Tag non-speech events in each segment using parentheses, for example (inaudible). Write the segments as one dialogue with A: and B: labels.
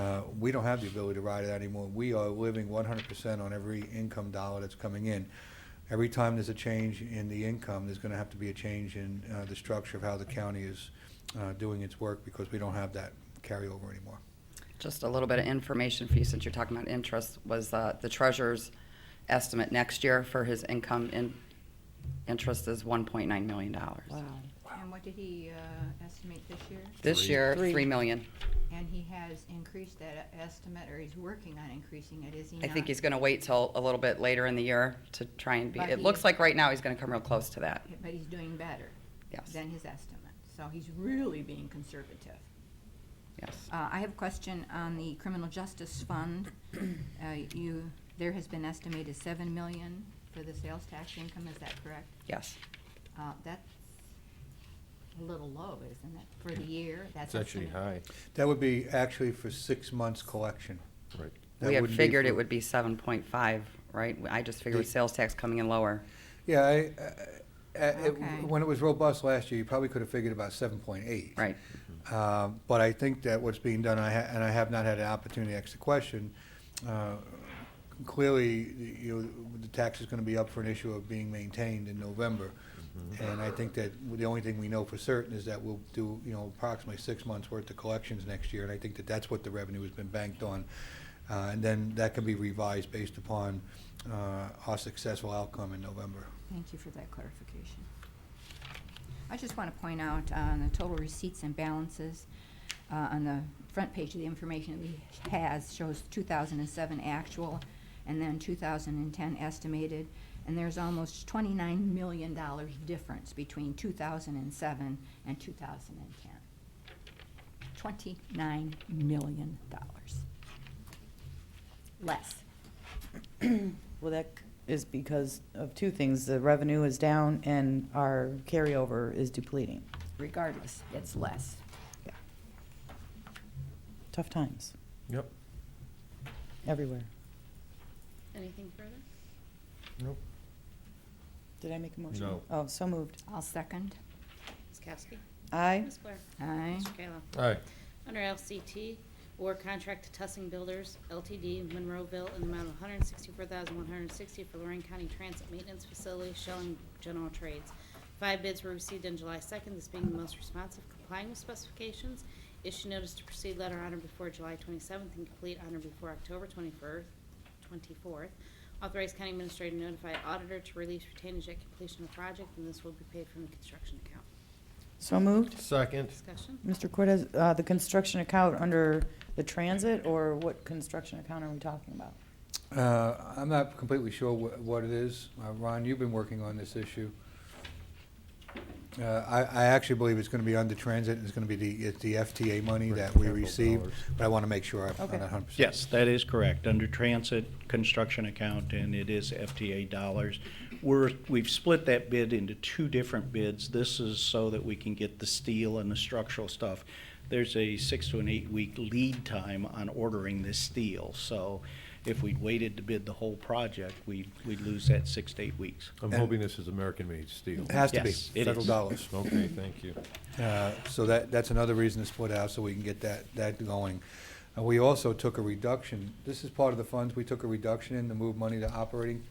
A: Uh, we don't have the ability to ride it anymore. We are living one hundred percent on every income dollar that's coming in. Every time there's a change in the income, there's gonna have to be a change in, uh, the structure of how the county is, uh, doing its work because we don't have that carryover anymore.
B: Just a little bit of information for you, since you're talking about interest, was uh, the treasurer's estimate next year for his income in, interest is one point nine million dollars.
C: Wow.
D: And what did he uh, estimate this year?
B: This year,
C: Three.
B: three million.
D: And he has increased that estimate, or he's working on increasing it, is he
B: I
D: not?
B: think he's gonna wait till a little bit later in the year to try and be,
D: But
B: it
D: he-
B: looks like right now he's gonna come real close to that,
D: But he's doing better
B: yes,
D: than his estimate, so he's really being conservative.
B: yes.
D: Uh, I have a question on the criminal justice fund. Uh, You, there has been estimated seven million for the sales tax income, is that correct?
B: Yes,
D: Uh, That's a little low, isn't it, for the year?
E: It's actually
D: estimate.
E: high,
A: That would be actually for six months collection.
E: right.
A: That
B: we had
A: wouldn't be
B: figured it
A: for-
B: would be seven point five, right? I just figured with
A: The-
B: sales tax coming in lower.
A: Yeah, I, I- I- it-
D: Okay.
A: when it was robust last year, you probably could have figured about seven point eight.
B: Right.
A: Um, But I think that what's being done, I ha- and I have not had an opportunity to ask the question, uh, clearly, the- you know, the tax is going to be up for an issue of being maintained in November. And I think that the only thing we know for certain is that we'll do, you know, approximately six months' worth of collections next year. And I think that that's what the revenue has been banked on. Uh, And then that can be revised based upon uh, our successful outcome in November.
D: Thank you for that clarification. I just want to point out uh, on the total receipts and balances, uh, on the front page of the information that he has shows 2007 actual and then 2010 estimated, and there's almost $29 million difference between 2007 and 2010. $29 million less.
C: Well, that is because of two things. The revenue is down and our carryover is depleting.
D: Regardless, it's less.
C: Tough times
E: Yep.
C: everywhere.
F: Anything further?
E: Nope.
C: Did I make a motion?
E: No.
C: Oh, so moved.
D: I'll second.
F: Ms. Kowski?
C: Aye.
F: Ms. Blair?
D: Aye.
F: Mr. Kayla?
E: Aye,
F: Under LCT, award contract to Tussing Builders LTD Monroeville in the amount of $164,160 for Lorraine County Transit Maintenance Facility, Shelling General Trades. Five bids were received on July 2nd, this being the most responsive complying with specifications. Issue notice to proceed letter on or before July 27th and complete on or before October 21st, 24th. Authorize county administrator to notify auditor to release retainage at completion of project, and this will be paid from the construction account.
C: So moved.
E: second,
F: Discussion?
C: Mr. Cortez, uh, the construction account under the transit or what construction account are we talking about?
A: Uh, I'm not completely sure wh- what it is. Uh, Ron, you've been working on this issue. Uh, I I actually believe it's going to be under transit, and it's going to be the it's the FTA money
E: Right,
A: that we
E: capital
A: receive,
E: dollars.
A: but I want to make sure I'm
C: Okay.
A: not 100%.
G: Yes, that is correct, under transit construction account, and it is FTA dollars. We're, we've split that bid into two different bids. This is so that we can get the steel and the structural stuff. There's a six to an eight-week lead time on ordering this steel, so if we'd waited to bid the whole project, we'd, we'd lose that six to eight weeks.
E: I'm hoping this is American-made steel.
A: It has to be,
G: Yes, it
A: federal
G: is.
A: dollars.
E: Okay, thank you.
A: Uh, So that, that's another reason to split out, so we can get that, that going. And we also took a reduction, this is part of the funds, we took a reduction in to move money to operating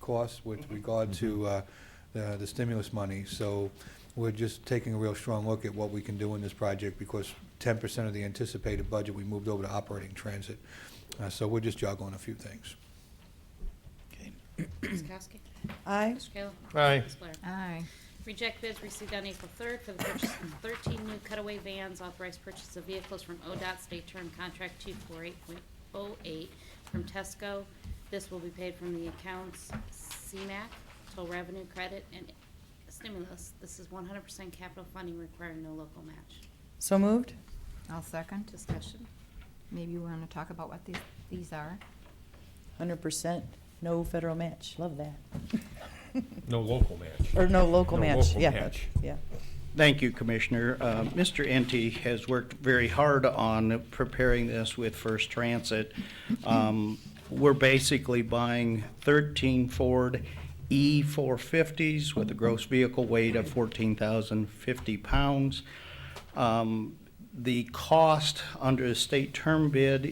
A: costs with regard to uh, the the stimulus money. So we're just taking a real strong look at what we can do in this project, because ten percent of the anticipated budget, we moved over to operating transit. Uh, So we're just juggling a few things.
G: Okay.
F: Ms. Kowski?
C: Aye.
F: Mr. Kayla?
E: Aye.
F: Ms. Blair?
D: Aye.
F: Reject bids received on April 3rd for the purchase of 13 new cutaway vans, authorized purchase of vehicles from ODOT State Term Contract 248.08 from Tesco. This will be paid from the accounts CMAC, Toll Revenue Credit, and Stimulus. This is 100% capital funding requiring no local match.
C: So moved.
D: I'll second.
F: Discussion?
D: Maybe we want to talk about what these, these are.
C: Hundred percent, no federal match. Love that. (laughs)
E: No local match.
C: Or no local
E: No
C: match,
E: local
C: yeah,
E: match.
C: yeah.
G: Thank you, Commissioner. Uh, Mr. Ente has worked very hard on preparing this with First Transit. Um, We're basically buying 13 Ford E450s with a gross vehicle weight of 14,050 pounds. Um, The cost under the state term bid